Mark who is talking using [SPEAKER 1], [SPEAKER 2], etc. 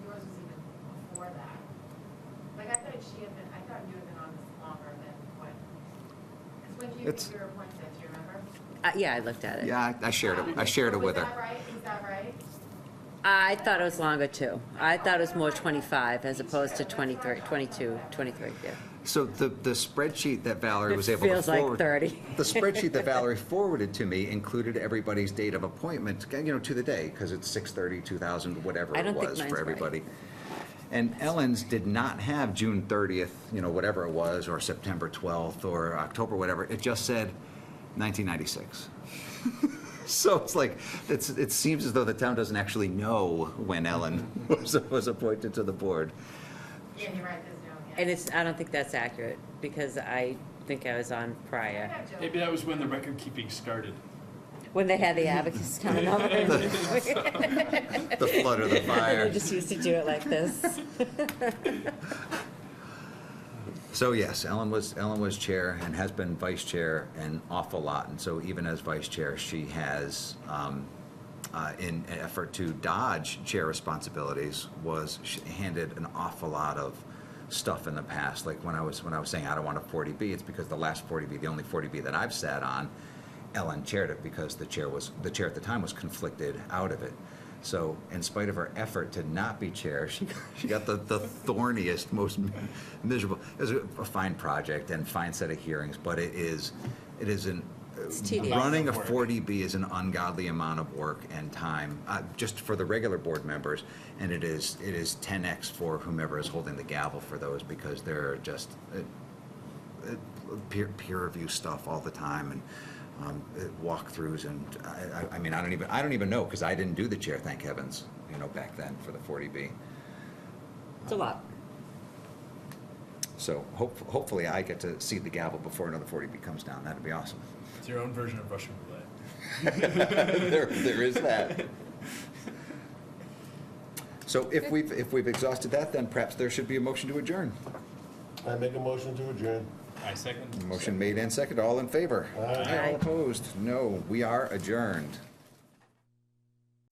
[SPEAKER 1] that she had been, I thought you had been on this longer than what, because when do you
[SPEAKER 2] It's-
[SPEAKER 1] think you were appointed, do you remember?
[SPEAKER 3] Uh, Yeah, I looked at it.
[SPEAKER 2] Yeah, I- I shared it, I shared it with
[SPEAKER 1] Was that
[SPEAKER 2] her.
[SPEAKER 1] right, is that right?
[SPEAKER 3] I thought it was longer too. I thought it was more 25 as opposed to 23, 22, 23, yeah.
[SPEAKER 2] So the, the spreadsheet that Valerie
[SPEAKER 3] It
[SPEAKER 2] was able to forward.
[SPEAKER 3] feels like 30.
[SPEAKER 2] The spreadsheet that Valerie forwarded to me included everybody's date of appointment, you know, to the day, because it's 6:30, 2000, whatever
[SPEAKER 3] I
[SPEAKER 2] it
[SPEAKER 3] don't think
[SPEAKER 2] was
[SPEAKER 3] mine's
[SPEAKER 2] for
[SPEAKER 3] right.
[SPEAKER 2] everybody. And Ellen's did not have June 30th, you know, whatever it was, or September 12th, or October, whatever. It just said 1996. So it's like, it's, it seems as though the town doesn't actually know when Ellen was, was appointed to the board.
[SPEAKER 1] Yeah, you're right, there's no, yeah.
[SPEAKER 3] And it's, I don't think that's accurate because I think I was on prior,
[SPEAKER 4] Maybe that was when the record keeping started.
[SPEAKER 3] when they had the advocates coming over.
[SPEAKER 2] The flood or the fire.
[SPEAKER 3] And they just used to do it like this.
[SPEAKER 2] So yes, Ellen was, Ellen was chair and has been vice chair an awful lot. And so even as vice chair, she has, um, uh, in an effort to dodge chair responsibilities, was sh- handed an awful lot of stuff in the past. Like when I was, when I was saying I don't want a 40B, it's because the last 40B, the only 40B that I've sat on, Ellen chaired it because the chair was, the chair at the time was conflicted out of it. So in spite of her effort to not be chair, she, she got the, the thorniest, most miserable, it was a a fine project and fine set of hearings, but it is, it is an,
[SPEAKER 3] It's tedious.
[SPEAKER 2] running a
[SPEAKER 4] Amount of work.
[SPEAKER 2] 40B is an ungodly amount of work and time, uh, just for the regular board members. And it is, it is 10X for whomever is holding the gavel for those because they're just, uh, peer, peer review stuff all the time and um, uh, walkthroughs and I, I, I mean I don't even I don't even know because I didn't do the chair thank heavens you know back then for the 40b
[SPEAKER 3] It's a lot.
[SPEAKER 2] so hope, hopefully I get to see the gavel before another 40b comes down that'd be awesome
[SPEAKER 4] It's your own version of Russian roulette.
[SPEAKER 2] there, there is that so if we've if we've exhausted that then perhaps there should be a motion to adjourn
[SPEAKER 5] I make a motion to adjourn.
[SPEAKER 4] I second.
[SPEAKER 2] motion made and seconded all in favor
[SPEAKER 5] Aye.
[SPEAKER 2] all opposed no we are adjourned